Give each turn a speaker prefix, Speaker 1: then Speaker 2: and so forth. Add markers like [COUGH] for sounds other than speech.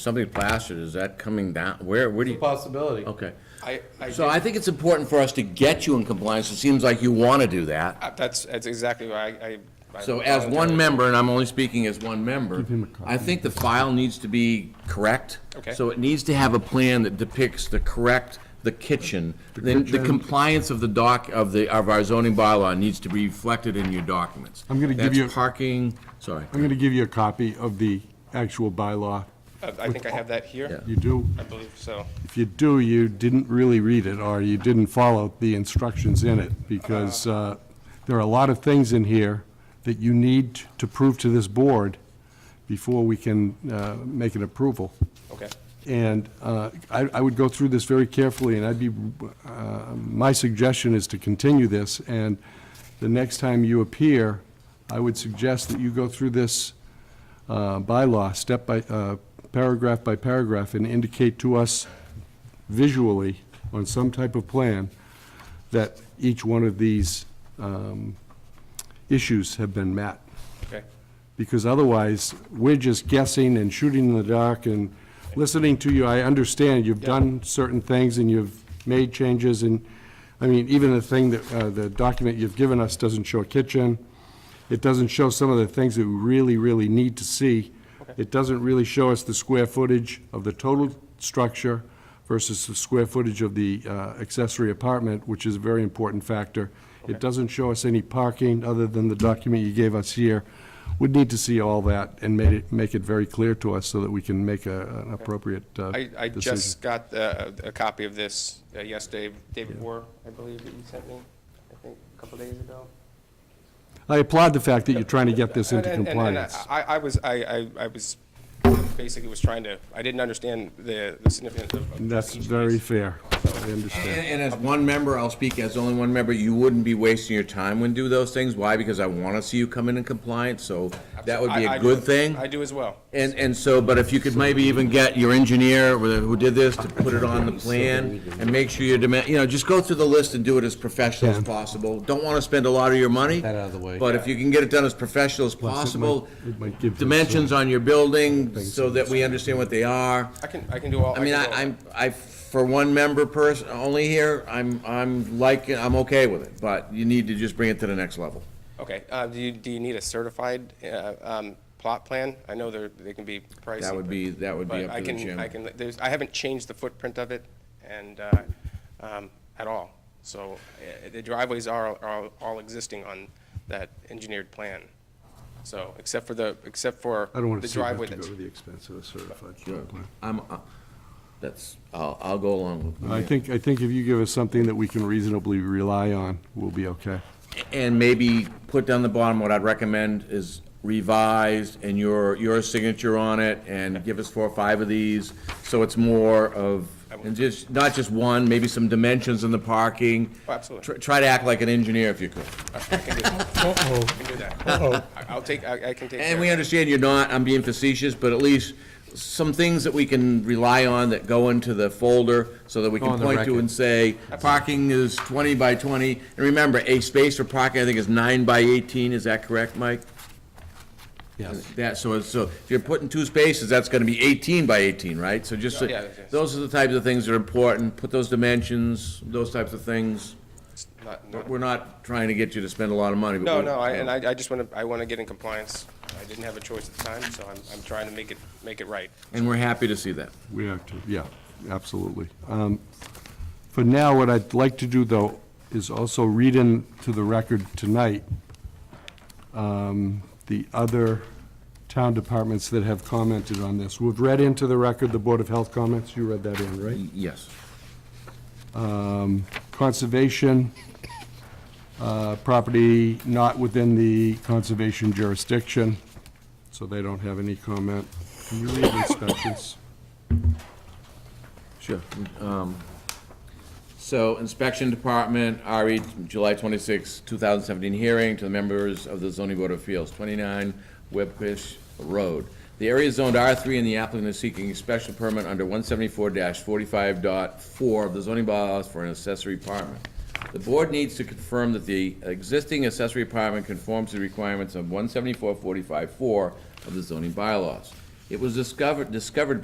Speaker 1: something plastered, is that coming down? Where, where do you,
Speaker 2: It's a possibility.
Speaker 1: okay.
Speaker 3: I, I,
Speaker 1: So I
Speaker 3: think-
Speaker 1: think it's important for us to get you in compliance. It seems like you want to do that.
Speaker 3: uh, that's, that's exactly why I- I. I
Speaker 1: So as one member, and I'm only speaking as one member, I think the file needs to be correct.
Speaker 3: Okay.
Speaker 1: So it needs to have a plan that depicts the correct, the kitchen, then the compliance of the doc, of the, of our zoning bylaw needs to be reflected in your documents.
Speaker 4: I'm gonna give you-
Speaker 1: That's parking, sorry.
Speaker 4: I'm going to give you a copy of the actual bylaw.
Speaker 3: Uh, I think I have that here,
Speaker 4: You do,
Speaker 3: I believe so.
Speaker 4: if you do, you didn't really read it, or you didn't follow the instructions in it, because uh, there are a lot of things in here that you need to prove to this board before we can uh, make an approval.
Speaker 3: Okay,
Speaker 4: And uh, I I would go through this very carefully, and I'd be, uh, my suggestion is to continue this, and the next time you appear, I would suggest that you go through this uh, bylaw, step by, uh, paragraph by paragraph, and indicate to us visually on some type of plan that each one of these um, issues have been met
Speaker 3: okay.
Speaker 4: because otherwise, we're just guessing and shooting in the dark and listening to you, I understand you've done certain things and you've made changes and, I mean, even the thing that, uh, the document you've given us doesn't show a kitchen. It doesn't show some of the things that we really, really need to see. It doesn't really show us the square footage of the total structure versus the square footage of the uh, accessory apartment, which is a very important factor. It doesn't show us any parking other than the document you gave us here. We'd need to see all that and made it, make it very clear to us so that we can make a- an appropriate uh,
Speaker 3: I,
Speaker 4: decision.
Speaker 3: I just got uh, a, a copy of this uh, yesterday, David War, I believe that you sent me, I think, a couple days ago.
Speaker 4: I applaud the fact that you're trying to get this
Speaker 3: And-
Speaker 4: into
Speaker 3: and- and- uh, and
Speaker 4: compliance.
Speaker 3: I, I was, I, I, I was, basically was trying to, I didn't understand the, the significance of.
Speaker 4: And That's very fair. I understand.
Speaker 1: And, and as one member, I'll speak as only one member, you wouldn't be wasting your time when do those things. Why? Because I want to see you come in in compliance, so that would be
Speaker 3: I- I
Speaker 1: a
Speaker 3: do-
Speaker 1: good thing.
Speaker 3: I do as well.
Speaker 1: And, and so, but if you could maybe even get your engineer with- who did this to put it on the plan and make sure your demand, you know, just go through the list and do it as professional as
Speaker 4: Yeah.
Speaker 1: possible. Don't want to spend a lot of your money.
Speaker 2: That out of the way.
Speaker 1: But if you can get it done as professional as
Speaker 4: might-
Speaker 1: possible,
Speaker 4: it might give you some-
Speaker 1: dimensions on your building so that we understand what they are.
Speaker 3: I can, I can do all.
Speaker 1: I mean,
Speaker 3: can
Speaker 1: I,
Speaker 3: do all.
Speaker 1: I'm, I, for one member person, only here, I'm, I'm like, I'm okay with it, but you need to just bring it to the next level.
Speaker 3: Okay, uh, do you, do you need a certified, uh, um, plot plan? I know they're, they can be pricey.
Speaker 1: That would be, that would be
Speaker 3: But
Speaker 1: up
Speaker 3: I
Speaker 1: to the
Speaker 3: can, I
Speaker 1: chairman.
Speaker 3: can, there's, I haven't changed the footprint of it and, uh, um, at all. So, uh, the driveways are, are all existing on that engineered plan. So, except for the, except for
Speaker 4: I don't want
Speaker 3: the
Speaker 4: to see that
Speaker 3: driveway
Speaker 4: to
Speaker 3: that's.
Speaker 4: go to the expense of a certified
Speaker 1: Sure.
Speaker 4: plot plan.
Speaker 1: I'm, uh, that's, I'll, I'll go along with
Speaker 4: I
Speaker 1: it.
Speaker 4: think, I think if you give us something that we can reasonably rely on, we'll be okay.
Speaker 1: And maybe put down the bottom, what I'd recommend is revised and your, your signature on it and give us four or five of these. So it's more of, and just, not just one, maybe some dimensions in the parking.
Speaker 3: Oh, absolutely.
Speaker 1: Try- Try to act like an engineer if you could.
Speaker 3: I can do that. I can do
Speaker 4: [LAUGHS]
Speaker 3: that. I- I'll take, I, I can take. care
Speaker 1: And
Speaker 3: of
Speaker 1: we
Speaker 3: it.
Speaker 1: understand you're not, I'm being facetious, but at least some things that we can rely on that go into the folder so that we can
Speaker 2: on the
Speaker 1: point to
Speaker 2: record.
Speaker 1: and say, parking is twenty by twenty. And remember, a space for parking, I think, is nine by eighteen, is that correct, Mike?
Speaker 2: Yes.
Speaker 1: That, so, it's- so if you're putting two spaces, that's gonna be eighteen by eighteen, right? So just, so-
Speaker 3: Yeah, yes.
Speaker 1: those are the types of things that are important, put those dimensions, those types of things.
Speaker 3: Not- not-
Speaker 1: But We're not trying to get you to spend a lot of money, but.
Speaker 3: No,
Speaker 1: we're-
Speaker 3: no, I, and I, I just wanna, I wanna get in compliance. I didn't have a choice at the time, so I'm, I'm trying to make it, make it right.
Speaker 1: And we're happy to see that.
Speaker 4: We have to, yeah, absolutely. Um, For now, what I'd like to do, though, is also read in to the record tonight um, the other town departments that have commented on this. We've read into the record the Board of Health comments, you read that in, right?
Speaker 1: Y- Yes.
Speaker 4: Conservation, uh, property not within the conservation jurisdiction, so they don't have any comment. Can you read inspections?
Speaker 1: Sure. Um, So inspection department, RE, July 26, 2017 hearing to the members of the zoning board of appeals, 29 Webfish Road. The area is zoned R3 and the applicant is seeking a special permit under 174-45.4 of the zoning bylaws for an accessory apartment. The board needs to confirm that the existing accessory apartment conforms to the requirements of 174-45.4 of the zoning bylaws. It was discovered, discovered